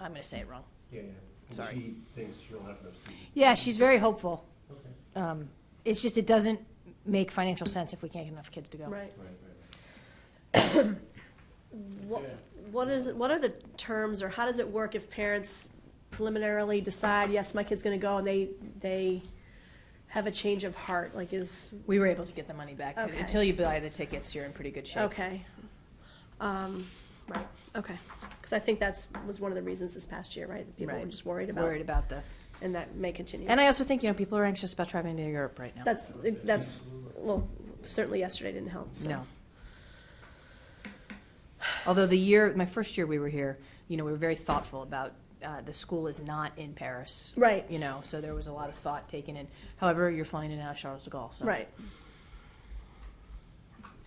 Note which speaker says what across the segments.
Speaker 1: I'm gonna say it wrong.
Speaker 2: Yeah, yeah. And
Speaker 1: Sorry.
Speaker 2: She thinks she'll have enough students.
Speaker 1: Yeah, she's very hopeful.
Speaker 2: Okay.
Speaker 1: Um, It's just, it doesn't make financial sense if we can't get enough kids to go.
Speaker 3: Right.
Speaker 2: Right, right,
Speaker 3: What,
Speaker 2: Yeah.
Speaker 3: what is, it- what are the terms, or how does it work if parents preliminarily decide, yes, my kid's gonna go, and they, they have a change of heart, like is,
Speaker 1: We were able to get the money back.
Speaker 3: Okay.
Speaker 1: Until you buy the tickets, you're in pretty good shape.
Speaker 3: okay. Um, right, okay. Because I think that's, was one of the reasons this past year, right? That people were
Speaker 1: Right.
Speaker 3: just worried about,
Speaker 1: Worried about the,
Speaker 3: and that may continue.
Speaker 1: and I also think, you know, people are anxious about traveling to Europe right now.
Speaker 3: That's, that's, well, certainly yesterday didn't help, so.
Speaker 1: No. Although the year, my first year we were here, you know, we were very thoughtful about, uh, the school is not in Paris.
Speaker 3: Right.
Speaker 1: You know, so there was a lot of thought taken in. However, you're flying in and out of Charles de Gaulle, so.
Speaker 3: Right,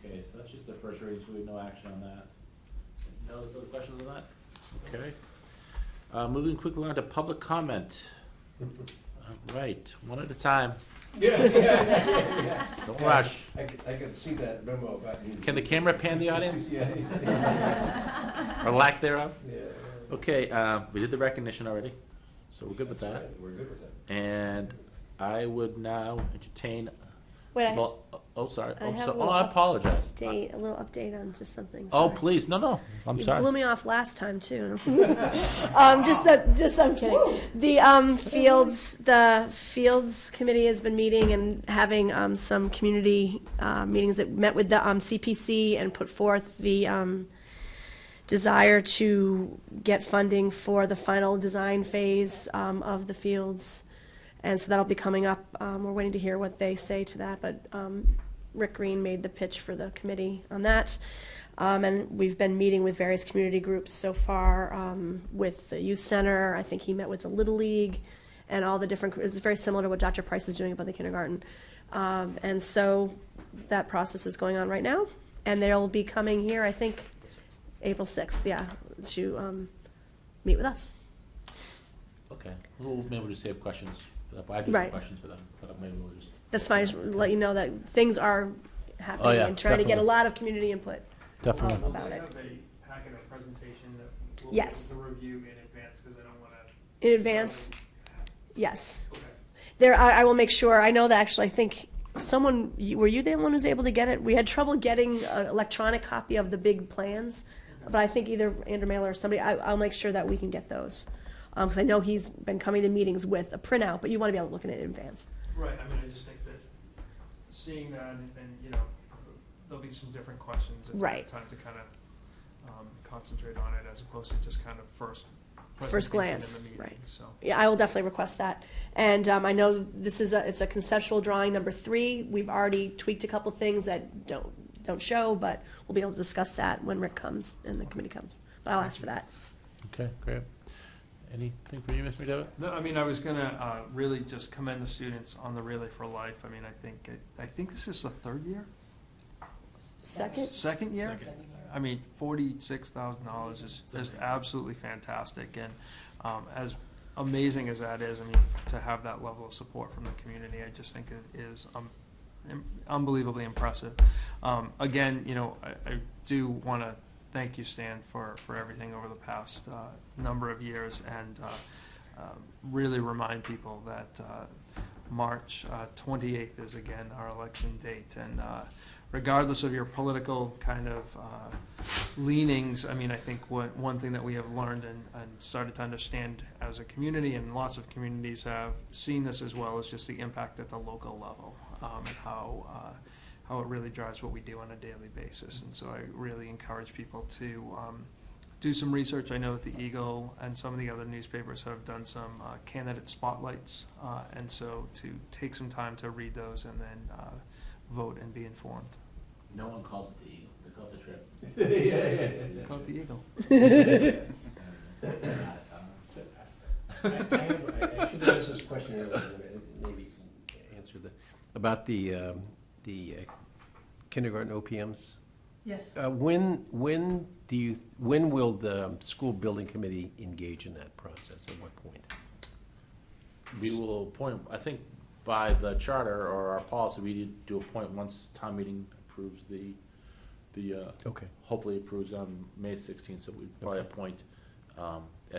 Speaker 4: Okay, so that's just the first read, so we have no action on that. No other questions on that? Okay. Uh, moving quickly on to public comment. All right, one at a time,
Speaker 2: right. Yeah, yeah,
Speaker 4: don't rush.
Speaker 2: I, c- I could see that memo about you.
Speaker 4: Can the camera pan the audience,
Speaker 2: Yeah, yeah,
Speaker 4: or lack thereof?
Speaker 2: yeah.
Speaker 4: Okay, uh, we did the recognition already, so we're good with
Speaker 2: That's
Speaker 4: that.
Speaker 2: right, We're good with that.
Speaker 4: And I would now entertain,
Speaker 3: wait, I
Speaker 4: well, oh, sorry,
Speaker 3: I
Speaker 4: oh,
Speaker 3: have a
Speaker 4: so, oh,
Speaker 3: little
Speaker 4: I apologize.
Speaker 3: update, a little update on just something.
Speaker 4: Oh,
Speaker 3: sorry.
Speaker 4: please, no, no, I'm
Speaker 3: You blew
Speaker 4: sorry.
Speaker 3: me off last time too. um, just that, just I'm kidding. The um, fields, the fields committee has been meeting and having um, some community uh, meetings that met with the um, CPC and put forth the um, desire to get funding for the final design phase um, of the fields. And so that'll be coming up. Um, we're waiting to hear what they say to that, but um, Rick Green made the pitch for the committee on that. Um, and we've been meeting with various community groups so far, um, with the youth center. I think he met with the Little League and all the different, it's very similar to what Dr. Price is doing about the kindergarten. Um, and so that process is going on right now. And they'll be coming here, I think, April 6th, yeah, to um, meet with us.
Speaker 4: Okay, we'll maybe just save questions, for that, but I do have
Speaker 3: Right.
Speaker 4: questions for them, but maybe we'll just.
Speaker 3: That's fine, I just wanted to let you know that things are happening
Speaker 4: Oh, yeah,
Speaker 3: and trying to get a
Speaker 4: definitely.
Speaker 3: lot of community input.
Speaker 4: Definitely.
Speaker 3: Um, about it.
Speaker 5: Will they have a packet of presentation that we'll be able
Speaker 3: Yes.
Speaker 5: to review in advance, because I don't want to.
Speaker 3: In advance, yes.
Speaker 5: Okay.
Speaker 3: There, I, I will make sure, I know that actually, I think someone, you- were you the one who's able to get it? We had trouble getting an electronic copy of the big plans, but I think either Andrew Mailer or somebody, I, I'll make sure that we can get those. Um 'cause because I know he's been coming to meetings with a printout, but you want to be able to look at it in advance.
Speaker 5: Right, I mean, I just think that seeing that and, and, you know, there'll be some different questions. and
Speaker 3: Right.
Speaker 5: Time to kind of um, concentrate on it as opposed to just kind of first.
Speaker 3: First
Speaker 5: presentation
Speaker 3: glance,
Speaker 5: in the meeting,
Speaker 3: right.
Speaker 5: So,
Speaker 3: Yeah, I will definitely request that. And um, I know this is a, it's a conceptual drawing number three. We've already tweaked a couple things that don't, don't show, but we'll be able to discuss that when Rick comes and the committee comes. But I'll ask for that.
Speaker 4: Okay, great. Anything for you, Mr. McDevitt?
Speaker 5: no, I mean, I was gonna uh, really just commend the students on the Relay for Life. I mean, I think, it- I think this is the third year,
Speaker 3: Second?
Speaker 5: second year? I mean, forty-six thousand dollars is just absolutely fantastic, and um, as amazing as that is, I mean, to have that level of support from the community, I just think it is um, im- unbelievably impressive. Um, Again, you know, I, I do want to thank you, Stan, for, for everything over the past uh, number of years, and uh, um, really remind people that uh, March uh, twenty-eighth is again our election date, and uh, regardless of your political kind of uh, leanings, I mean, I think what, one thing that we have learned and, and started to understand as a community, and lots of communities have seen this as well, is just the impact at the local level, um, and how, uh, how it really drives what we do on a daily basis. And so I really encourage people to, um, do some research. I know that the Eagle and some of the other newspapers have done some uh, candidate spotlights, uh, and so to take some time to read those and then uh, vote and be informed.
Speaker 4: No one calls it the Eagle, they call it the Trip.
Speaker 2: Yeah, yeah, yeah, yeah.
Speaker 5: Go with the Eagle.
Speaker 2: I I have, I- I should have asked this question earlier, and maybe you can answer the, about the, um, the uh, kindergarten OPMs.
Speaker 1: Yes.
Speaker 2: Uh, When, when do you, when will the um, school building committee engage in that process? At what point?
Speaker 4: We will appoint, I think by the charter or our policy, we need to appoint once town meeting approves the, the, uh,
Speaker 2: Okay.
Speaker 4: hopefully approves on May sixteenth, so we probably
Speaker 2: Oh. Okay.
Speaker 4: appoint, um,